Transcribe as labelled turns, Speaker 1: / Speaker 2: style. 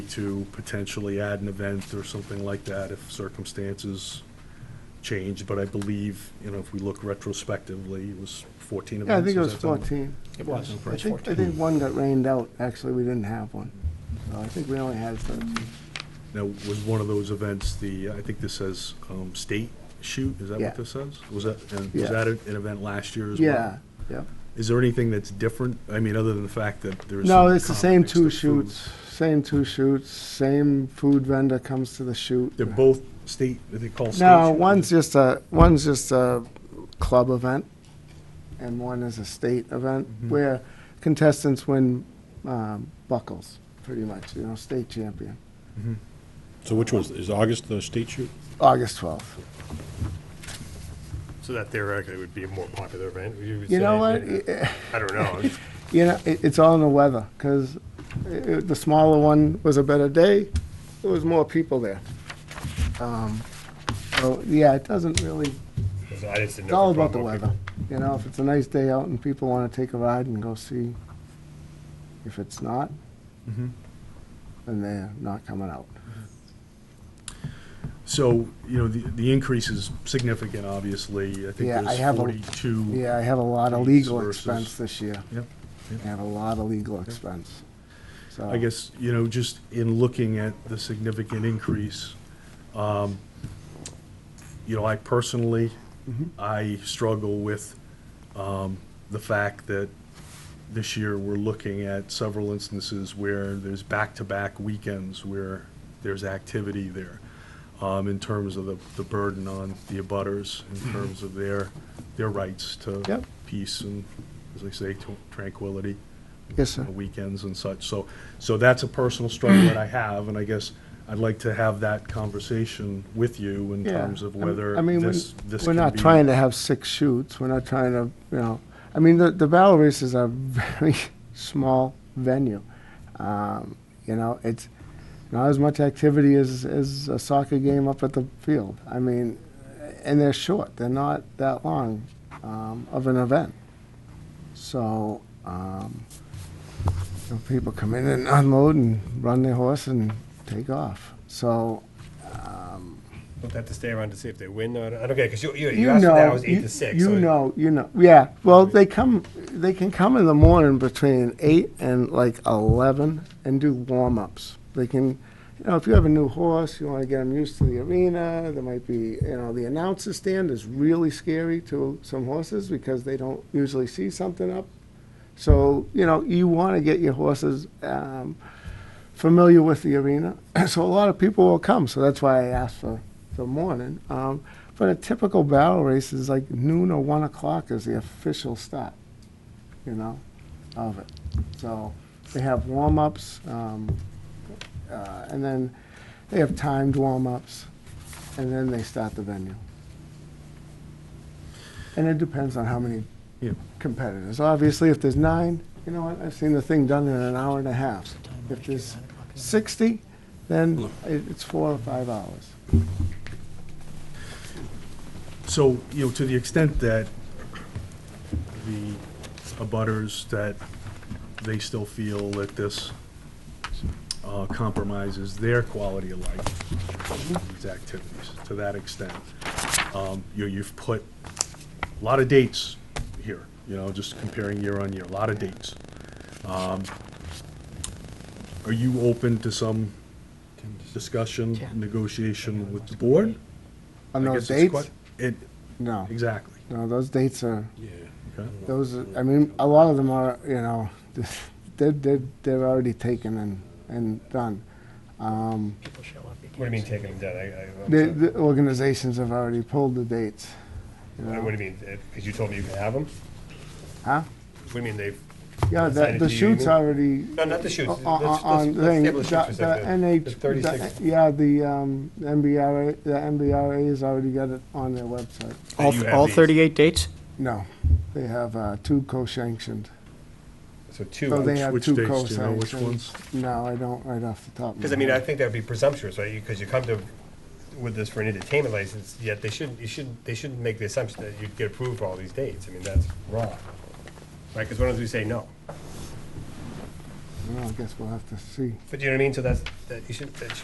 Speaker 1: to potentially add an event or something like that if circumstances change, but I believe, you know, if we look retrospectively, it was 14
Speaker 2: Yeah, I
Speaker 1: events.
Speaker 2: think it
Speaker 1: is
Speaker 2: was
Speaker 1: that something?
Speaker 2: 14.
Speaker 1: It was.
Speaker 2: I think, I think one got rained out, actually, we didn't have one. So I think we only had 13.
Speaker 1: Now, was one of those events the, I think this says um, state shoot, is that
Speaker 2: Yeah.
Speaker 1: what this says? Was that, and
Speaker 2: Yeah.
Speaker 1: was that an an event last year as well?
Speaker 2: Yeah, yeah.
Speaker 1: Is there anything that's different? I mean, other than the fact that there is.
Speaker 2: No,
Speaker 1: some
Speaker 2: it's the same
Speaker 1: context
Speaker 2: two
Speaker 1: of food.
Speaker 2: shoots, same two shoots, same food vendor comes to the shoot.
Speaker 1: They're both state, they call state.
Speaker 2: No,
Speaker 1: shoot?
Speaker 2: one's just a, one's just a club event, and one is a state event,
Speaker 1: Mm-hmm.
Speaker 2: where contestants win um, buckles, pretty much, you know, state champion,
Speaker 3: So which one's, is August the state shoot?
Speaker 2: August 12th.
Speaker 4: So that theoretically would be a more popular event. would
Speaker 2: You know
Speaker 4: say?
Speaker 2: what?
Speaker 4: I don't know.
Speaker 2: You know, it, it's all in the weather because the smaller one was a better day. There was more people there. Um, so yeah, it doesn't really.
Speaker 4: I just didn't know.
Speaker 2: It's all about the weather. You know, if it's a nice day out and people want to take a ride and go see. If it's not, then they're not coming out.
Speaker 1: So, you know, the, the increase is significant, obviously. I think
Speaker 2: Yeah, I
Speaker 1: there's
Speaker 2: have a-
Speaker 1: forty-two.
Speaker 2: Yeah, I have a lot of
Speaker 1: Fees
Speaker 2: legal
Speaker 1: Mm-hmm. versus-
Speaker 2: expense this year.
Speaker 1: Yep.
Speaker 2: I have a lot of legal expense. So
Speaker 1: I guess, you know, just in looking at the significant increase, um, you know, I personally, I struggle with um, the fact that this year, we're looking at several instances where there's back-to-back weekends where there's activity there um, in terms of the the burden on the abutters, in terms of their, their rights to
Speaker 2: Yep.
Speaker 1: peace and, as I say, to tranquility
Speaker 2: Yes, sir.
Speaker 1: on the weekends and such. So, so that's a personal struggle that I have, and I guess I'd like to have that conversation with you in
Speaker 2: Yeah,
Speaker 1: terms of
Speaker 2: I mean-
Speaker 1: whether
Speaker 2: I mean, we're-
Speaker 1: this, this
Speaker 2: We're
Speaker 1: can
Speaker 2: not
Speaker 1: be-
Speaker 2: trying to have six shoots, we're not trying to, you know, I mean, the, the barrel races are very small venue. Um, You know, it's not as much activity as, as a soccer game up at the field. I mean, and they're short, they're not that long um, of an event. So, um, you know, people come in and unload and run their horse and take off. So,
Speaker 4: We'll have to stay around to see if they win. or not. I don't get because you, you, you
Speaker 2: you
Speaker 4: asked
Speaker 2: know,
Speaker 4: for that, it was eight
Speaker 2: you,
Speaker 4: to six.
Speaker 2: you
Speaker 4: so-
Speaker 2: know, you know. Yeah. Well, they come. They can come in the morning between eight and like eleven and do warm ups. They can, you know, if you have a new horse, you want to get them used to the arena. There might be, you know, the announcer stand is really scary to some horses because they don't usually see something up. So you know, you want to get your horses. Um, familiar with the arena, so a lot of people will come. So that's why I asked for the morning. Um, but a typical barrel race is like noon or one o'clock is the official start, you know, of it. So they have warm ups, um, uh, and then they have timed warm ups, and then they start the venue. And it depends on how many
Speaker 1: Yeah.
Speaker 2: competitors. Obviously, if there's nine, you know what, I've seen the thing done in an hour and a half. If there's 60, then
Speaker 1: Hmm.
Speaker 2: it- it's four or five hours.
Speaker 1: So, you know, to the extent that the abutters, that they still feel that this uh, compromises their quality of life, these activities, to that extent. Um, You, you've put a lot of dates here, you know, just comparing year on year, a lot of dates. Um, Are you open to some discussion, negotiation with the board? I
Speaker 2: On those
Speaker 1: guess it's
Speaker 2: dates?
Speaker 1: quite- It,
Speaker 2: No,
Speaker 1: exactly.
Speaker 2: no, those dates are,
Speaker 3: Yeah.
Speaker 1: Okay.
Speaker 2: those, are- I mean, a lot of them are, you know, they're, they're, they're already taken and, and done. Um,
Speaker 5: people show up.
Speaker 4: What do you mean taking them down? I, I, I'm
Speaker 2: The,
Speaker 4: sorry.
Speaker 2: the organizations have already pulled the dates, you
Speaker 4: Uh,
Speaker 2: know.
Speaker 4: What do you mean? Because you told me you can have them?
Speaker 2: huh?
Speaker 4: What do you mean they've?
Speaker 2: Yeah, the,
Speaker 4: Decided
Speaker 2: the
Speaker 4: to
Speaker 2: shoots
Speaker 4: use-
Speaker 2: already.
Speaker 4: No, not the shoots.
Speaker 2: o- o-
Speaker 4: Let's- let's-
Speaker 2: On
Speaker 4: let's
Speaker 2: thing, the,
Speaker 4: table the shoots for
Speaker 2: the
Speaker 4: a second.
Speaker 2: NH.
Speaker 4: The 36.
Speaker 2: the- Yeah, the, um, MBRA, the MBRA has already got it on their website.
Speaker 4: that you
Speaker 5: All,
Speaker 4: have
Speaker 5: all
Speaker 4: these.
Speaker 5: thirty-eight dates?
Speaker 2: No, they have, uh, two co-sanctioned.
Speaker 4: So two.
Speaker 2: So they have
Speaker 1: Which
Speaker 2: two
Speaker 1: dates do you know which
Speaker 2: co-sanctions.
Speaker 1: ones?
Speaker 2: No, I don't right off the top of my
Speaker 4: Because I mean, I
Speaker 2: head.
Speaker 4: think that would be presumptuous, right? Because you come to with this for an entertainment license, yet they shouldn't. You shouldn't. They shouldn't make the assumption that you'd get approved for all these dates. I mean, that's wrong, right? Because why don't we say no?
Speaker 2: Well, I guess we'll have to see.
Speaker 4: But you know what I mean? So that's, that you should, that should